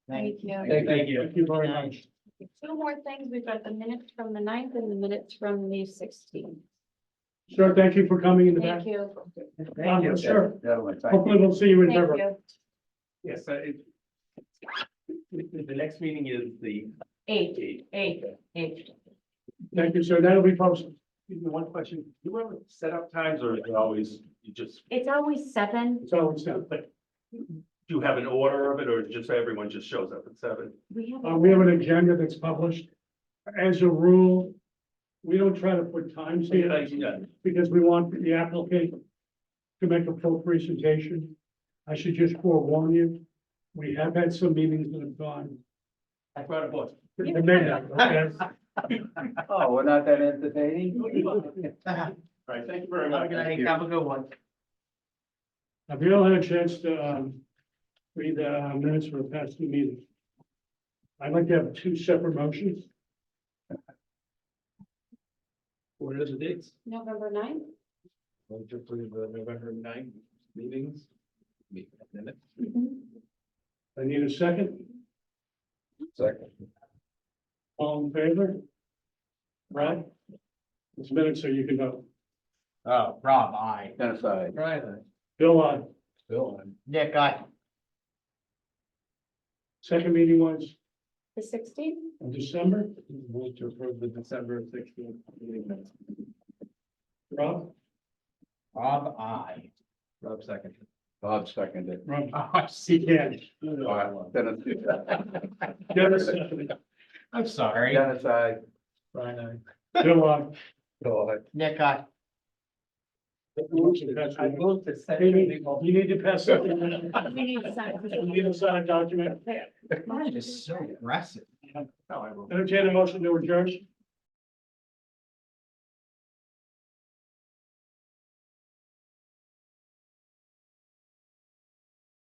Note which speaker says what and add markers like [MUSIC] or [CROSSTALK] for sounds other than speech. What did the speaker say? Speaker 1: Thank you.
Speaker 2: Thank thank you.
Speaker 3: Thank you very much.
Speaker 1: Two more things. We've got the minutes from the ninth and the minutes from the sixteenth.
Speaker 3: Sir, thank you for coming in the back.
Speaker 1: Thank you.
Speaker 3: Thank you, sir.
Speaker 2: Gentlemen, thank you.
Speaker 3: Hopefully we'll see you in
Speaker 1: Thank
Speaker 3: River.
Speaker 1: you.
Speaker 4: Yes, uh, it. The, the next meeting is the
Speaker 1: Eight,
Speaker 4: eighth.
Speaker 1: eight, eight.
Speaker 3: Thank you, sir. That'll be posted.
Speaker 4: Excuse me, One question, do you have set up times or is it always, you just,
Speaker 1: It's always seven.
Speaker 3: It's always done.
Speaker 4: do you have an order of it or just everyone just shows up at seven?
Speaker 1: We have.
Speaker 3: Uh, we have an agenda that's published. As a rule, we don't try to put times
Speaker 4: Yeah,
Speaker 3: here
Speaker 4: yeah.
Speaker 3: because we want the applicant to make a full presentation. I should just forewarn you, we have had some meetings that have gone.
Speaker 4: I brought a book.
Speaker 3: to midnight, okay?
Speaker 2: Oh, we're not that entertaining?
Speaker 4: All right, thank you very much.
Speaker 2: Have a good one.
Speaker 3: Have you all had a chance to, um, read the uh, minutes for the past two meetings? I'd like to have two separate motions.
Speaker 4: What are the dates?
Speaker 1: November ninth.
Speaker 4: Well, just for the November ninth meetings. Minutes.
Speaker 3: Mm-hmm. I need a second.
Speaker 2: Second.
Speaker 3: All in favor? Right? It's minutes, so you can vote.
Speaker 5: Oh, Rob, I.
Speaker 2: Dennis, I.
Speaker 5: Brian.
Speaker 3: Bill, uh, on
Speaker 5: Bill. Nick, I.
Speaker 3: second meeting was
Speaker 1: The sixteenth.
Speaker 3: in December,
Speaker 5: Move to approve the December sixteenth meeting minutes.
Speaker 3: Rob,
Speaker 5: Rob, I. Rob second.
Speaker 2: Bob seconded.
Speaker 3: Rob,
Speaker 5: [LAUGHS] Oh,
Speaker 3: he can.
Speaker 2: All right, Dennis.
Speaker 3: Dennis, uh, seconded.
Speaker 5: I'm sorry.
Speaker 2: Dennis, I.
Speaker 5: Brian,
Speaker 3: Bill, uh, on
Speaker 2: Bill, I.
Speaker 5: Nick, I.
Speaker 3: I
Speaker 5: moved to
Speaker 3: You need- you need to pass something.
Speaker 1: We need to sign.
Speaker 3: You need to sign a document.
Speaker 5: Mine is so aggressive.
Speaker 3: Entertain a motion to adjourn.